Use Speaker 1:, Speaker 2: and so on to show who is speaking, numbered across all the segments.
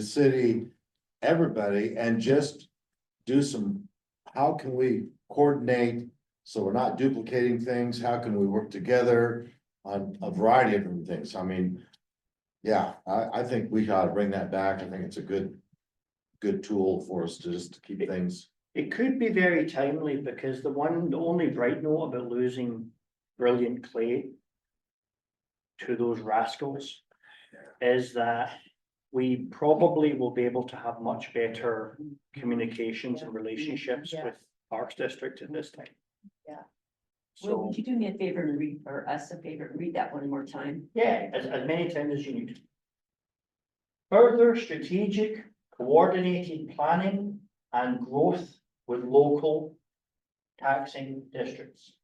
Speaker 1: the city, everybody, and just do some, how can we coordinate? So we're not duplicating things, how can we work together on a variety of different things, I mean. Yeah, I, I think we gotta bring that back, I think it's a good, good tool for us to just to keep things.
Speaker 2: It could be very timely because the one, the only bright note about losing brilliant clay. To those rascals. Is that we probably will be able to have much better communications and relationships
Speaker 3: Yeah.
Speaker 2: with Parks District at this time.
Speaker 3: Yeah.
Speaker 4: Will,
Speaker 2: So,
Speaker 4: would you do me a favor and read, or us a favor, and read that one more time?
Speaker 2: yeah, as, as many times as you need. Further strategic coordinated planning and growth with local taxing districts.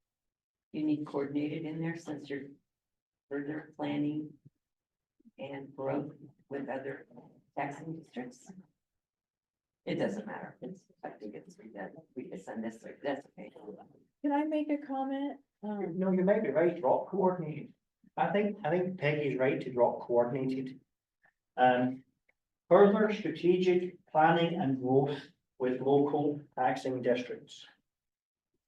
Speaker 4: You need coordinated in there since you're further planning and growth with other taxing districts? It doesn't matter. It's, I think it's, read that, we can send this, like, that's okay.
Speaker 3: Can I make a comment? Um,
Speaker 2: No, you might be right, drop coordinated. I think, I think Peggy's right to drop coordinated. Um, further strategic planning and growth with local taxing districts.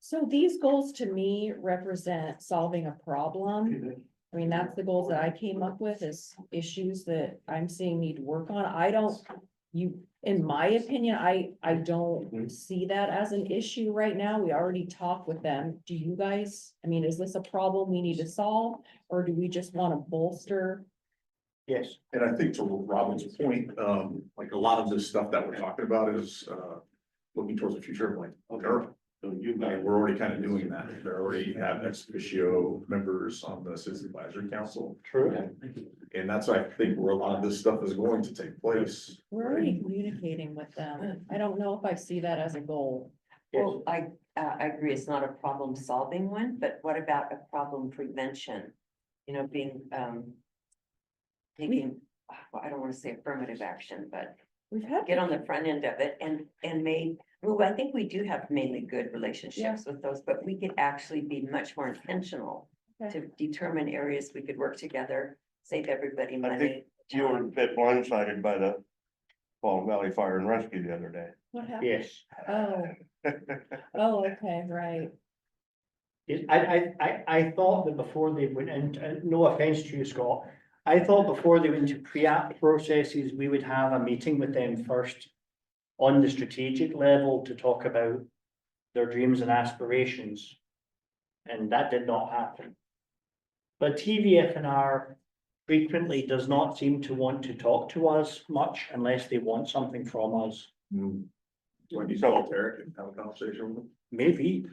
Speaker 3: so these goals to me represent solving a problem. I mean, that's the goals that I came up with is issues that I'm seeing need work on. I don't, you, in my opinion, I, I don't
Speaker 2: Mhm.
Speaker 3: see that as an issue right now. We already talked with them. Do you guys, I mean, is this a problem we need to solve? Or do we just want to bolster?
Speaker 2: Yes,
Speaker 5: And I think to Robin's point, um, like a lot of this stuff that we're talking about is, uh, looking towards the future of like, Durham.
Speaker 1: So you
Speaker 5: And we're already kind of doing that. They already have ex officio members on the citizen advisory council.
Speaker 2: true.
Speaker 5: And that's, I think, where a lot of this stuff is going to take place.
Speaker 3: We're already communicating with them. I don't know if I see that as a goal.
Speaker 2: Yes,
Speaker 4: Well, I, uh, I agree, it's not a problem solving one, but what about a problem prevention? You know, being, um, taking, well, I don't wanna say affirmative action, but
Speaker 3: We've had.
Speaker 4: get on the front end of it and, and may, well, I think we do have mainly good relationships with those, but we could actually be much more intentional
Speaker 3: Okay.
Speaker 4: to determine areas we could work together, save everybody
Speaker 6: I
Speaker 4: money. Um,
Speaker 6: You were a bit blindsided by the Fall Valley Fire and Rescue the other day.
Speaker 3: What happened?
Speaker 2: yes.
Speaker 3: Oh, oh, okay, right.
Speaker 2: Yes, I, I, I, I thought that before they went into, and no offense to you, Scott, I thought before they went to pre-app processes, we would have a meeting with them first on the strategic level to talk about their dreams and aspirations. And that did not happen. But TVFNR frequently does not seem to want to talk to us much unless they want something from us,
Speaker 6: Mm.
Speaker 5: When you call Eric and have a conversation with
Speaker 2: maybe.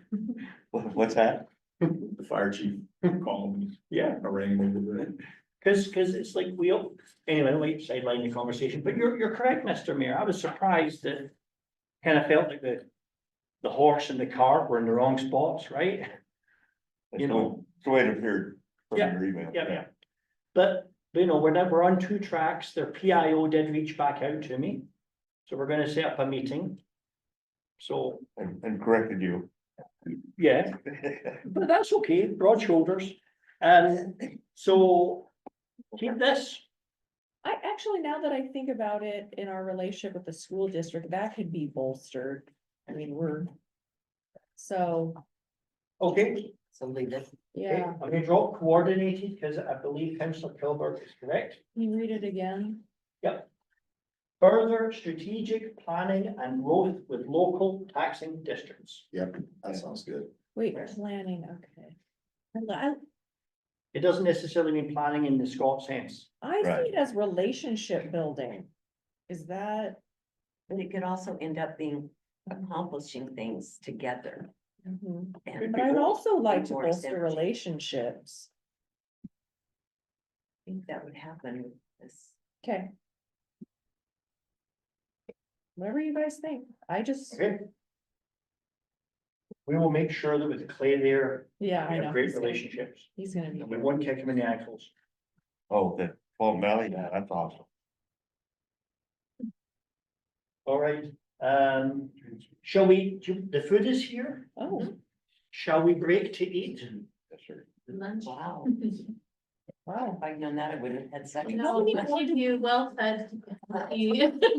Speaker 6: What's that?
Speaker 5: him, the fire chief, call him,
Speaker 2: Yeah.
Speaker 5: arrange with him.
Speaker 2: Cause, cause it's like we, all- anyway, we sideline the conversation, but you're, you're correct, Mr. Mayor. I was surprised that kind of felt like the, the horse and the cart were in the wrong spots, right? You know.
Speaker 6: It's the way it appeared from
Speaker 2: Yeah,
Speaker 6: your email.
Speaker 2: Yeah, yeah. But, you know, we're not, we're on two tracks. Their PIO did reach back out to me. So we're gonna set up a meeting. So,
Speaker 6: And, and corrected you.
Speaker 2: yeah, but that's okay, broad shoulders. Um, so keep this.
Speaker 3: I actually, now that I think about it, in our relationship with the school district, that could be bolstered. I mean, we're. So,
Speaker 2: Okay.
Speaker 4: So leave it.
Speaker 2: Okay,
Speaker 3: yeah,
Speaker 2: I'm gonna drop coordinated, because I believe Councillor Kilburg is correct.
Speaker 3: can you read it again?
Speaker 2: Further strategic planning and growth with local taxing districts.
Speaker 1: That sounds good.
Speaker 3: Wait, planning, okay. I,
Speaker 2: It doesn't necessarily mean planning in the Scott sense.
Speaker 3: I
Speaker 6: Right.
Speaker 3: see it as relationship building. Is that?
Speaker 4: But it could also end up being accomplishing things together.
Speaker 3: mhm.
Speaker 4: And
Speaker 3: But I'd also like to
Speaker 4: More
Speaker 3: bolster
Speaker 4: synergy.
Speaker 3: relationships.
Speaker 4: I think that would happen with this.
Speaker 3: Okay. Whatever you guys think. I just,
Speaker 2: Okay. We will make sure that with Clay there,
Speaker 3: yeah,
Speaker 2: we
Speaker 3: I know.
Speaker 2: have great
Speaker 3: he's gonna-
Speaker 2: relationships.
Speaker 3: He's gonna be.
Speaker 2: We won't kick him in the ankles.
Speaker 6: Oh, the Fall Valley, yeah, that's awesome.
Speaker 2: All right, um, shall we, the food is here.
Speaker 3: Oh.
Speaker 2: Shall we break to eat?
Speaker 4: Wow.
Speaker 7: Wow.
Speaker 4: If I'd known that, I wouldn't have had second.
Speaker 3: No, thank you, well said.